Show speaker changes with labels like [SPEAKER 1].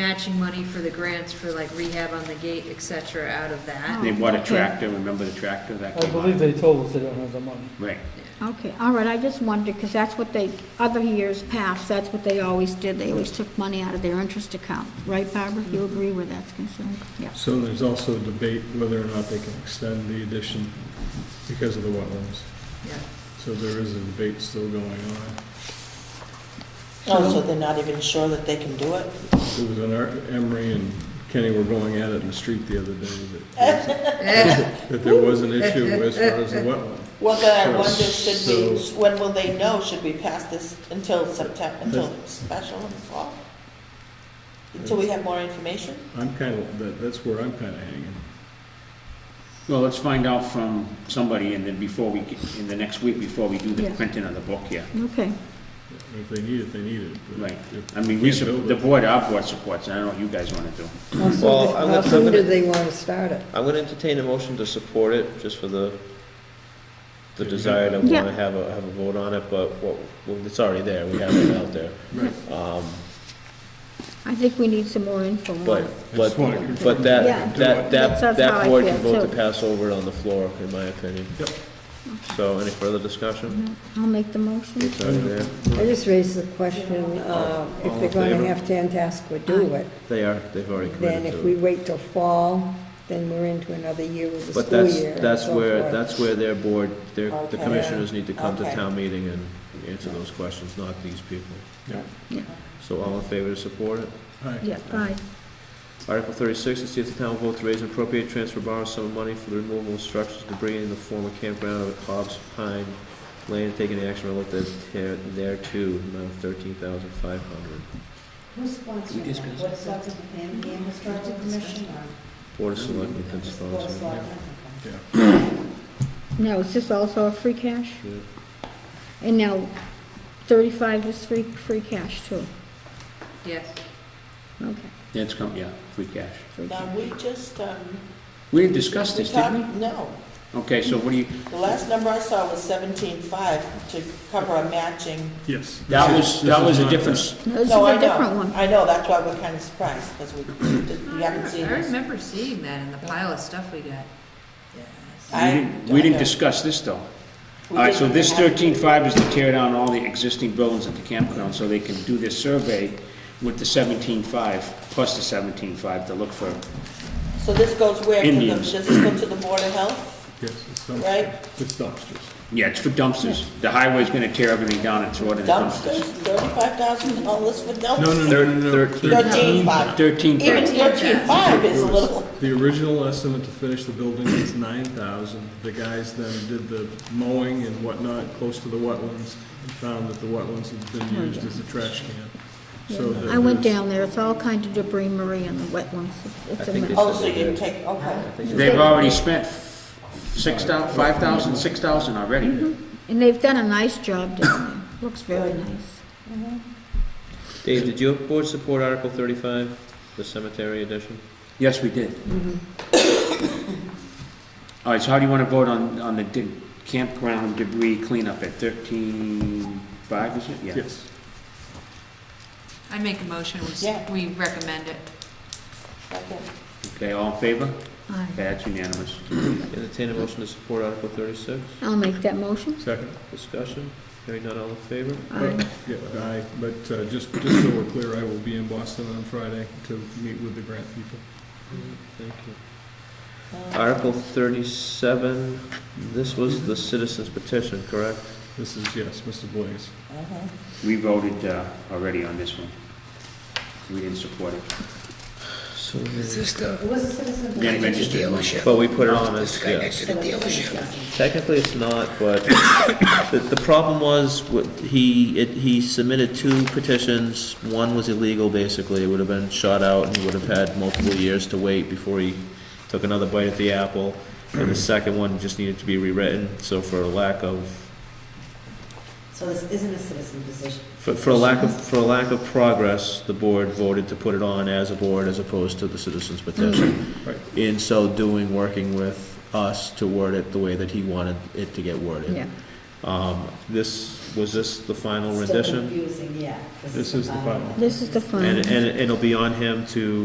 [SPEAKER 1] matching money for the grants for like rehab on the gate, et cetera, out of that.
[SPEAKER 2] They bought a tractor, remember the tractor that
[SPEAKER 3] I
[SPEAKER 2] came out?
[SPEAKER 3] believe they told us they don't have the money.
[SPEAKER 2] Right,
[SPEAKER 4] Okay, all right, I just wondered, because that's what they, other years past, that's what they always did. They always took money out of their interest account, right, Barbara? You
[SPEAKER 5] Mm-hmm.
[SPEAKER 4] agree where that's concerned? Yeah.
[SPEAKER 6] So there's also debate whether or not they can extend the addition because of the wetlands.
[SPEAKER 1] Yeah.
[SPEAKER 6] So there is a debate still going on.
[SPEAKER 5] Oh, so they're not even sure that they can do it?
[SPEAKER 6] It was an, ar- Emery and Kenny were going at it in the street the other day that, that there was an issue as far as the wetland.
[SPEAKER 5] Well, then I
[SPEAKER 6] Sure.
[SPEAKER 5] wonder, should we,
[SPEAKER 6] So-
[SPEAKER 5] when will they know? Should we pass this until September, until
[SPEAKER 6] That's-
[SPEAKER 5] special in the fall? Until we have more information?
[SPEAKER 6] I'm kind of, that, that's where I'm kind of hanging.
[SPEAKER 2] well, let's find out from somebody and then before we, get- in the next week, before we do the
[SPEAKER 4] Yeah.
[SPEAKER 2] printing of the book here.
[SPEAKER 4] Okay,
[SPEAKER 6] If they need it, they need it. but
[SPEAKER 2] Right,
[SPEAKER 6] if
[SPEAKER 2] I mean,
[SPEAKER 6] they
[SPEAKER 2] we,
[SPEAKER 6] can't
[SPEAKER 2] sup-
[SPEAKER 6] build
[SPEAKER 2] the
[SPEAKER 6] it-
[SPEAKER 2] board, our board supports, it. I don't know what you guys wanna do.
[SPEAKER 7] Well, I'm
[SPEAKER 8] How
[SPEAKER 7] gonna- I'm
[SPEAKER 8] soon do
[SPEAKER 7] gonna,
[SPEAKER 8] they want to start it?
[SPEAKER 7] I'm gonna entertain a motion to support it, just for the, the
[SPEAKER 6] Yeah.
[SPEAKER 7] desire to
[SPEAKER 4] Yeah.
[SPEAKER 7] wanna have a, have a vote on it, but what, well, it's already there, we have it out there. Um,
[SPEAKER 4] I think we need some more info on
[SPEAKER 7] but,
[SPEAKER 4] it.
[SPEAKER 6] I
[SPEAKER 7] but,
[SPEAKER 6] just want to confirm.
[SPEAKER 7] but
[SPEAKER 4] Yeah.
[SPEAKER 7] that, that,
[SPEAKER 4] That's-
[SPEAKER 7] that,
[SPEAKER 4] that's how
[SPEAKER 7] that
[SPEAKER 4] I
[SPEAKER 7] board
[SPEAKER 4] feel,
[SPEAKER 7] can vote
[SPEAKER 4] too.
[SPEAKER 7] to pass over it on the floor, in my opinion.
[SPEAKER 6] Yep.
[SPEAKER 7] So, any further discussion?
[SPEAKER 4] I'll make the motion.
[SPEAKER 7] It's already there. Oh,
[SPEAKER 8] I just raised the question, uh, if
[SPEAKER 7] All
[SPEAKER 8] they're
[SPEAKER 7] in
[SPEAKER 8] going
[SPEAKER 7] favor?
[SPEAKER 8] to have Tantascwa do it,
[SPEAKER 7] They are, they've already
[SPEAKER 8] then
[SPEAKER 7] committed
[SPEAKER 8] if
[SPEAKER 7] to
[SPEAKER 8] we
[SPEAKER 7] it.
[SPEAKER 8] wait till fall, then we're into another year with the
[SPEAKER 7] But
[SPEAKER 8] school
[SPEAKER 7] that's,
[SPEAKER 8] year. and
[SPEAKER 7] that's
[SPEAKER 8] so
[SPEAKER 7] where,
[SPEAKER 8] forth.
[SPEAKER 7] that's where their board, their, the
[SPEAKER 5] Okay.
[SPEAKER 7] commissioners need to come to
[SPEAKER 5] Okay.
[SPEAKER 7] town meeting and answer those questions, not these people.
[SPEAKER 6] Yeah.
[SPEAKER 4] Yeah.
[SPEAKER 7] So all in favor to support it?
[SPEAKER 6] All right.
[SPEAKER 4] Yeah, aye.
[SPEAKER 7] Article thirty-six, to see if the town will vote to raise and appropriate transfer borrow some money for the removal of structures debris in the former campground of Cobb's Pine Lane, taking action relative there- thereto, amount of thirteen thousand five hundred.
[SPEAKER 2] We discussed.
[SPEAKER 7] Board of
[SPEAKER 8] Mm-hmm.
[SPEAKER 7] Selectmen can sponsor.
[SPEAKER 4] Now, is this also a free cash?
[SPEAKER 7] Yeah.
[SPEAKER 4] And now, thirty-five is free, free cash too.
[SPEAKER 1] Yes.
[SPEAKER 4] Okay,
[SPEAKER 2] That's come, yeah, free cash.
[SPEAKER 4] free
[SPEAKER 5] Now,
[SPEAKER 4] cash.
[SPEAKER 5] we just, um.
[SPEAKER 2] We didn't discuss this, did
[SPEAKER 5] talked-
[SPEAKER 2] we?
[SPEAKER 5] No.
[SPEAKER 2] Okay, so what do you,
[SPEAKER 5] The last number I saw was seventeen-five to cover a matching.
[SPEAKER 6] Yes.
[SPEAKER 2] that
[SPEAKER 6] This
[SPEAKER 2] was,
[SPEAKER 6] is-
[SPEAKER 2] that
[SPEAKER 6] this is
[SPEAKER 2] was a
[SPEAKER 6] not
[SPEAKER 2] difference,
[SPEAKER 4] No, This is
[SPEAKER 5] No, I
[SPEAKER 4] a
[SPEAKER 5] know.
[SPEAKER 4] different one.
[SPEAKER 5] I know, that's why we're kind of surprised, because we, we haven't seen
[SPEAKER 1] I
[SPEAKER 5] this.
[SPEAKER 1] remember seeing that in the pile of stuff we got.
[SPEAKER 2] we
[SPEAKER 5] I-
[SPEAKER 2] didn't, we didn't
[SPEAKER 5] I-
[SPEAKER 2] discuss this though.
[SPEAKER 5] we
[SPEAKER 2] All right, so
[SPEAKER 5] didn't
[SPEAKER 2] this
[SPEAKER 5] have-
[SPEAKER 2] thirteen-five is to tear down all the existing buildings at the campground, so they can do this survey with the seventeen-five, plus the seventeen-five to look for,
[SPEAKER 5] So this goes where, to the,
[SPEAKER 2] Indians.
[SPEAKER 5] does this go to the Board of Health?
[SPEAKER 6] Yes, it's dumpsters.
[SPEAKER 5] Right.
[SPEAKER 6] It's dumpsters.
[SPEAKER 2] yeah, it's for dumpsters. The highway's gonna tear everything down and throw it in the
[SPEAKER 5] Dumpsters,
[SPEAKER 2] dumpsters.
[SPEAKER 5] thirty-five thousand dollars for dumpsters?
[SPEAKER 6] No, no, no,
[SPEAKER 7] Thir-
[SPEAKER 6] no, no.
[SPEAKER 7] thirteen.
[SPEAKER 5] Thirteen-five.
[SPEAKER 2] Thirteen,
[SPEAKER 5] Even
[SPEAKER 2] right.
[SPEAKER 5] thirteen-five is a
[SPEAKER 6] It was-
[SPEAKER 5] little,
[SPEAKER 6] The original estimate to finish the building was nine thousand. The guys then did the mowing and whatnot close to the wetlands and found that the wetlands had been used as a trash can. So that
[SPEAKER 4] I went
[SPEAKER 6] there's-
[SPEAKER 4] down there, it's all kind of debris marie in the wetlands. It's-
[SPEAKER 7] I
[SPEAKER 4] It's a
[SPEAKER 7] think
[SPEAKER 4] mess.
[SPEAKER 7] it's-
[SPEAKER 5] oh, so you didn't take, okay.
[SPEAKER 2] They've already spent six thou, five thousand, six thousand already.
[SPEAKER 4] And they've done a nice job down there, looks very nice.
[SPEAKER 7] Dave, did your board support Article thirty-five, the cemetery edition?
[SPEAKER 2] Yes, we did. All right, so how do you wanna vote on, on the di- campground debris cleanup at thirteen-five, is it? Yeah.
[SPEAKER 6] Yes.
[SPEAKER 1] I make a motion, we, s-
[SPEAKER 5] Yeah.
[SPEAKER 1] we recommend it.
[SPEAKER 5] Second.
[SPEAKER 2] Okay, all in favor?
[SPEAKER 4] Aye.
[SPEAKER 2] Okay, that's unanimous.
[SPEAKER 7] Entertain a motion to support Article thirty-six?
[SPEAKER 4] I'll make that motion.
[SPEAKER 6] Second?
[SPEAKER 7] Discussion? Hearing none, all in favor?
[SPEAKER 4] Aye.
[SPEAKER 6] Yeah, I, but uh, just, just so we're clear, I will be in Boston on Friday to meet with the grant people.
[SPEAKER 7] Thank you.
[SPEAKER 5] Um,
[SPEAKER 7] Article thirty-seven, this was the citizens petition, correct?
[SPEAKER 6] This is, yes, Mr. Blaze.
[SPEAKER 5] uh-huh.
[SPEAKER 2] We voted uh, already on this one. We didn't support it.
[SPEAKER 7] So,
[SPEAKER 2] Then registered.
[SPEAKER 7] but we put it on as, yeah. Technically, it's not, but the, the problem was, what- he, it, he submitted two petitions. One was illegal, basically, it would have been shot out, and he would have had multiple years to wait before he took another bite at the apple. And the second one just needed to be rewritten, so for a lack of
[SPEAKER 9] So this isn't a citizen position.
[SPEAKER 7] For, for a lack of, for a lack of progress, the board voted to put it on as a board as opposed to the citizens petition.
[SPEAKER 6] Right.
[SPEAKER 7] In so doing, working with us to word it the way that he wanted it to get worded.
[SPEAKER 4] Yeah.
[SPEAKER 7] Um, This, was this the final
[SPEAKER 8] Still
[SPEAKER 7] rendition?
[SPEAKER 8] confusing, yeah. uh,
[SPEAKER 6] This is the final.
[SPEAKER 4] This is the
[SPEAKER 7] And,
[SPEAKER 4] final.
[SPEAKER 7] and it'll be on him to